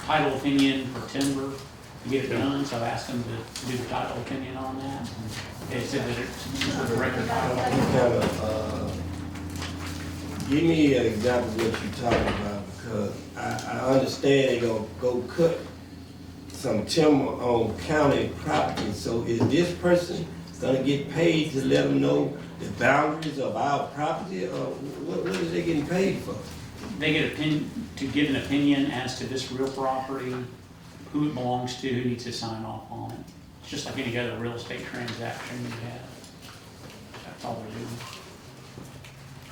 title opinion for timber to get it done, so I asked them to do the title opinion on that. They said that it's a record title. What kind of, uh, Give me an example of what you're talking about, because I, I understand they gonna go cut some timber on county property, so is this person gonna get paid to let them know the boundaries of our property, or what, what is they getting paid for? They get opinion, to give an opinion as to this real property, who it belongs to, who needs to sign off on it. It's just like any other real estate transaction you have. That's all we're doing.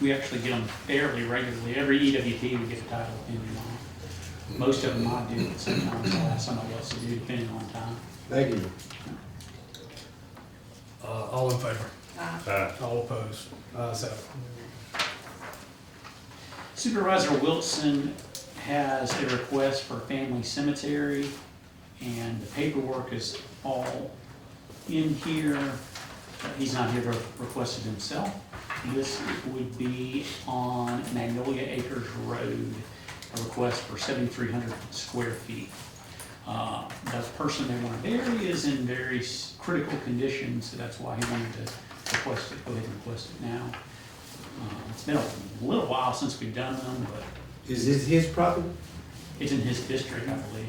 We actually get them fairly regularly. Every EWP we get a title opinion on. Most of them I do, but sometimes I'll ask somebody else to do depending on time. Thank you. Uh, all in favor? Aye. All opposed? Uh, Ayes have it. Supervisor Wilson has a request for a family cemetery, and the paperwork is all in here. He's not here to request it himself. This would be on Magnolia Acres Road, a request for seventy-three hundred square feet. Uh, The person they want to bury is in very s- critical condition, so that's why he wanted to request it, go ahead and request it now. Um, It's been a little while since we've done them, but Is this his property? it's in his district, I believe.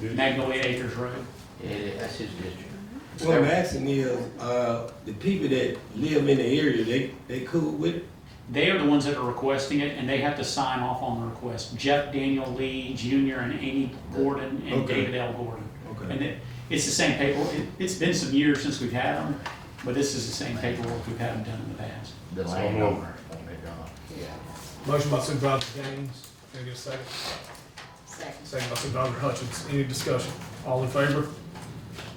Magnolia Acres Road. Yeah, that's his district. What I'm asking is, uh, the people that live in the area, they, they cool with it? They are the ones that are requesting it, and they have to sign off on the request. Jeff Daniel Lee Jr. and Amy Gordon and Okay. David L. Gordon. Okay. And it, it's the same paperwork. It- It's been some years since we've had them, but this is the same paperwork we've had them done in the past. The So landowner on it, uh, yeah. Motion by Supervisor Gaines, can I get a second? Second. Second by Supervisor Hutchins, any discussion? All in favor?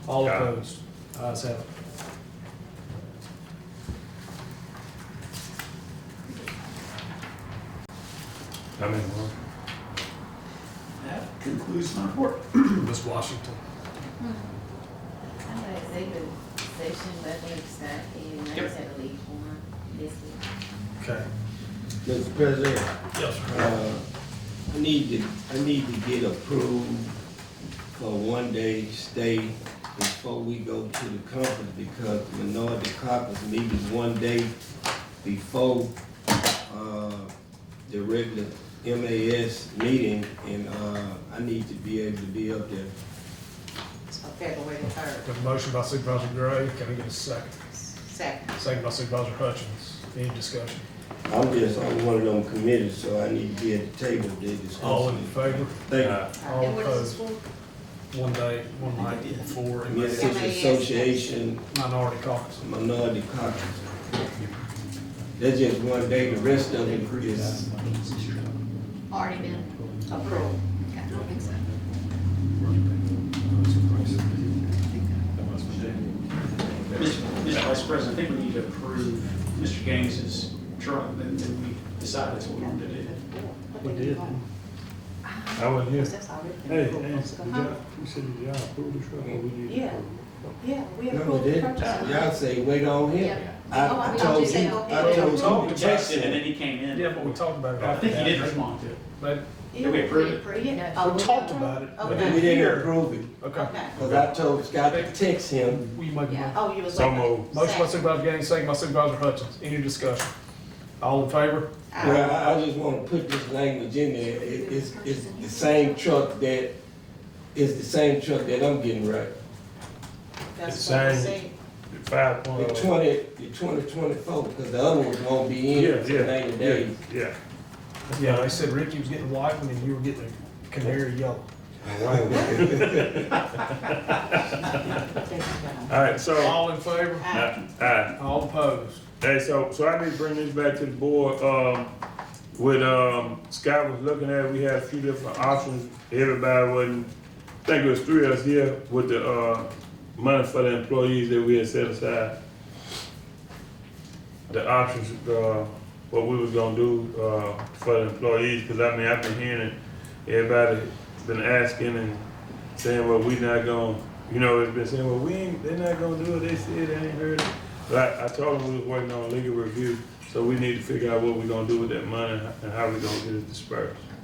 All Aye. opposed? Ayes have it. I'm in one. That concludes my report. Ms. Washington, Hmm. I'm gonna executive session, but we start in, I Yep. just had to leave one, this is. okay. Mr. President? Yes, sir. Uh, I need to, I need to get approved for one day stay before we go to the conference because the minority caucus meeting one day before, uh, the regular MAS meeting and, uh, I need to be able to be up there. February the third, Got a motion by Supervisor Gray, can I get a second? second. Second by Supervisor Hutchins, any discussion? I'm just on one of them committees, so I need to be at the table to discuss. All in favor? Thank you. Aye. All And what is opposed? this for? One day, one night, four, and Mississippi MAS. Association minority caucus. minority caucus. That's just one day, the rest of it is, Already been approved. I don't think so. Mr. Vice President, I think we need to approve Mr. Gaines's truck, and then we decide that's what we're going to do. We did. I Oh, wasn't here. That's already been Hey, hey, approved you months ago. got, you said you got approved this truck, or we need to Yeah. approve? Yeah, we no, we approved the didn't. purchase. Y'all say, wait on him. Yeah. I Oh, I I thought told you said you, go I ahead. We told talked you to to check Jackson, and then it. he came in. Yeah, but we talked about it. I think he did after that. respond to it. But Did we approve it? Oh, we talked about it, but We Okay. didn't approve it, Okay. Okay. cause I told Scott to text him. Will you make a Yeah. motion? Oh, you was So like. moved. Motion by Supervisor Gaines, second by Supervisor Hutchins. Any discussion? All in favor? Ah. Well, I, I just wanna put this language in there, it, it's, it's the same truck that, it's the same truck that I'm getting right. That's It's what I saying- said. Five The point. twenty, the twenty twenty-four, cause the other ones won't be Yeah, in for yeah, ninety yeah, days. yeah. Yeah, they said Ricky was getting white one and you were getting a canary yellow. All right, so, All in favor? aye, aye. All opposed? Hey, so, so I need to bring this back to the board, um, what, um, Scott was looking at, we had a few different options. Everybody wasn't, I think it was three of us here with the, uh, money for the employees that we had set aside. The options, uh, what we was gonna do, uh, for the employees, cause I mean, I've been hearing it, everybody been asking and saying, well, we not gonna, you know, it's been saying, well, we ain't, they're not gonna do it, they said, they ain't heard it. But I, I told them we was waiting on legal review, so we need to figure out what we gonna do with that money and how we gonna get it dispersed. I